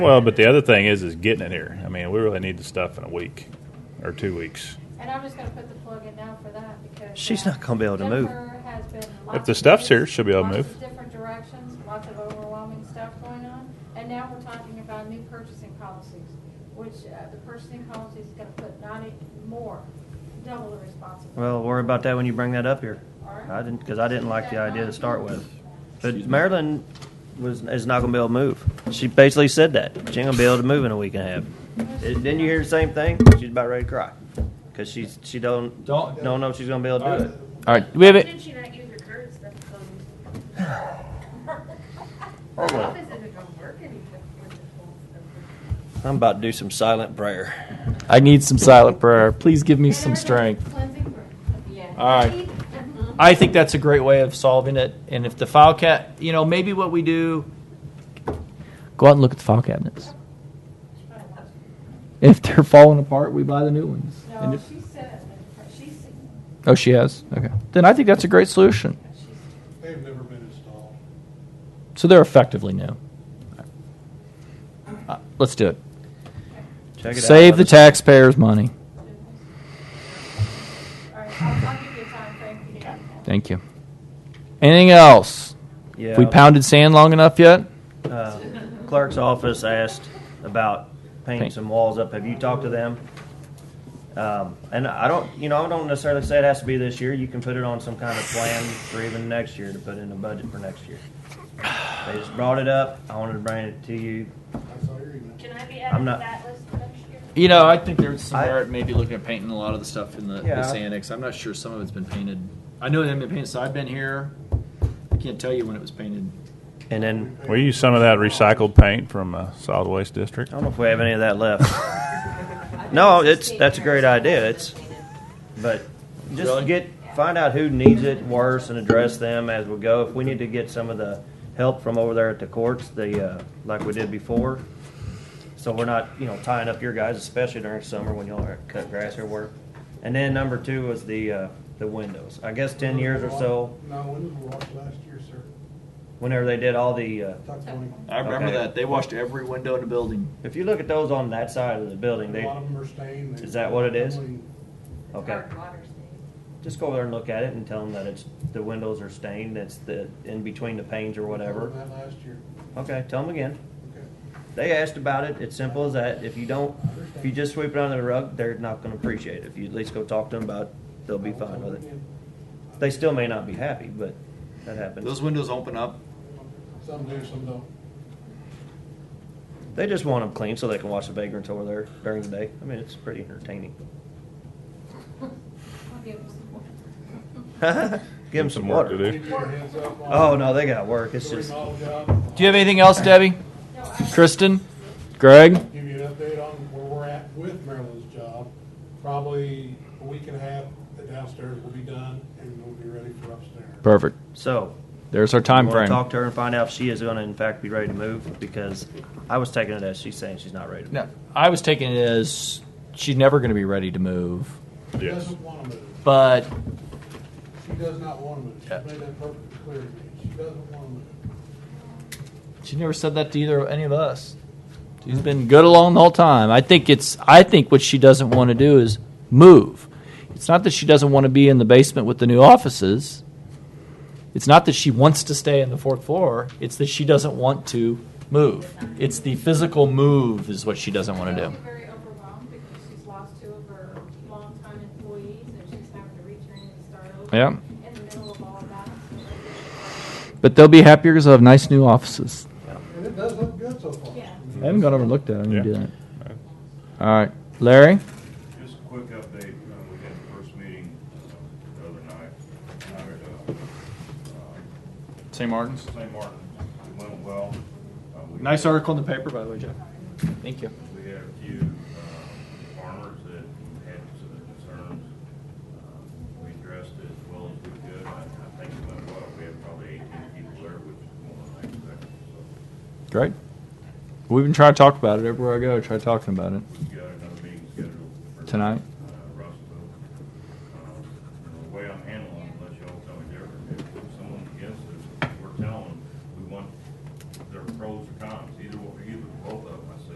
Well, but the other thing is, is getting it here. I mean, we really need the stuff in a week or two weeks. And I'm just gonna put the plug in now for that because. She's uh, not gonna be able to move. Denver has been If lots the of stuff's here, news, she'll be able to lots of move. Different directions, lots of overwhelming stuff going on, and now we're talking about new purchasing policies, which, uh, the purchasing policy is gonna put not a- more, double the responsibility. Well, worry about that when you bring that up here. All right. I didn't, because I didn't like the idea to start with. But Marilyn was, is not gonna be able to move. She basically said that. She ain't gonna be able to move in a week and a half. Didn't you hear the same thing? She's about ready to cry. Because she's, she don't, Don't- don't know if she's gonna be able to do it. All right, do we have it. Did she not use her curds? That's so. Hold on. Office isn't gonna work anymore with the whole stuff. I'm about to do some silent prayer. I need some silent prayer. Please give me some Everybody's strength. cleansing breath. Yeah. All right. I think that's a great way of solving it. And if the file cat, you know, maybe what we do, go out and look at the file cabinets. If they're falling apart, we buy the new ones. And No, if, she said, that- she, said- oh, she has. Okay. Then I think that's a great solution. she said. They've never been installed. So they're effectively new. Uh, let's do it. Check it out. Save the taxpayers' money. All right, I'll, I'll give you a time frame for you. Thank you. Anything else? Yeah. We pounded sand long enough yet? uh, Clerk's office asked about painting Paint. some walls up. Have you talked to them? Um, and I don't, you know, I don't necessarily say it has to be this year. You can put it on some kind of plan for even next year to put in the budget for next year. They just brought it up. I wanted to bring it to you. I saw your email. Can I be I'm added to not- that list for next year? You know, I think there's some I- merit maybe looking at painting a lot of the stuff in the, Yeah. this annex. I'm not sure some of it's been painted. I know it hasn't been painted, so I've been here. I can't tell you when it was painted. And then We use some of that recycled paint from uh, solid waste district. I don't know if we have any of that left. no, it's that's a great idea. It's, but just Really? get find out who needs it worse and address them as we go. If we need to get some of the help from over there at the courts, the uh, like we did before, so we're not you know tying up your guys, especially during summer when y'all are cut grass or work. And then number two was the uh, the windows. I guess ten years or so, No, when was the last- last year, sir? whenever they did all the. Uh, Talk to me. I remember Okay. that. They washed every window in the building. if you look at those on that side of the A building, they lot of them are stained. They- Is that what it is? okay. Hard water stains. Just go over there and look at it and tell them that it's, the windows are stained, it's the, in between the panes or whatever. That last year. Okay, tell them again. Okay. They asked about it, it's simple as that. If you don't, if you just sweep it under the rug, they're not gonna appreciate it. If you at least go talk to them about it, they'll be fine with it. They still may not be happy, but that Those happens. windows open up. Some do, some don't. They just want them clean so they can watch the vagrants over there during the day. I mean, it's pretty entertaining. I'll give them some more. Give them some water. to do. Give you a heads up on Oh, no, they got work, it's the just, remodel job. Do you have anything else, Debbie? No, I- Kristen? Greg? Give you an update on where we're at with Maryland's job. Probably a week and a half, the downstairs will be done and we'll be ready for upstairs. Perfect. so, There's our I'm time going to frame. talk to her and find out if she is going to, in fact, be ready to move because I was taking it as she's saying she's not ready to move. No, I was taking it as she's never going to be ready to move, She Yes. doesn't want to move. but She does not want to move. She Yeah. made that perfectly clear to me. She doesn't want to move. She never said that to either any of us. She's been good along the whole time. I think it's. I think what she doesn't want to do is move. It's not that she doesn't want to be in the basement with the new offices. It's not that she wants to stay in the fourth floor. It's that she doesn't want to move. It's the physical move is what she doesn't want to She's do. Very overwhelmed because she's lost two of her longtime employees and she's having to retrain and start over. Yeah. In the middle of all of that. so- But they'll be happier because they'll have nice new offices. And it does look good so far. Yeah. I haven't gone over and looked at them. Yeah. do that. All right, Larry. Just a quick update, uh, we had the first meeting uh, the other night, out at, uh, uh, St. Martin's. St. Martin, it went well. Uh, we- Nice article in the paper, by the way, Jeff. Thank you. We had a few uh, farmers that had some concerns. Uh, We addressed it as well as we could. I I think it went well. We had probably 18 people there, which is more than I expected, so Great. We've been trying to talk about it everywhere I go. Try talking about it we got another meeting scheduled. for- uh, tonight.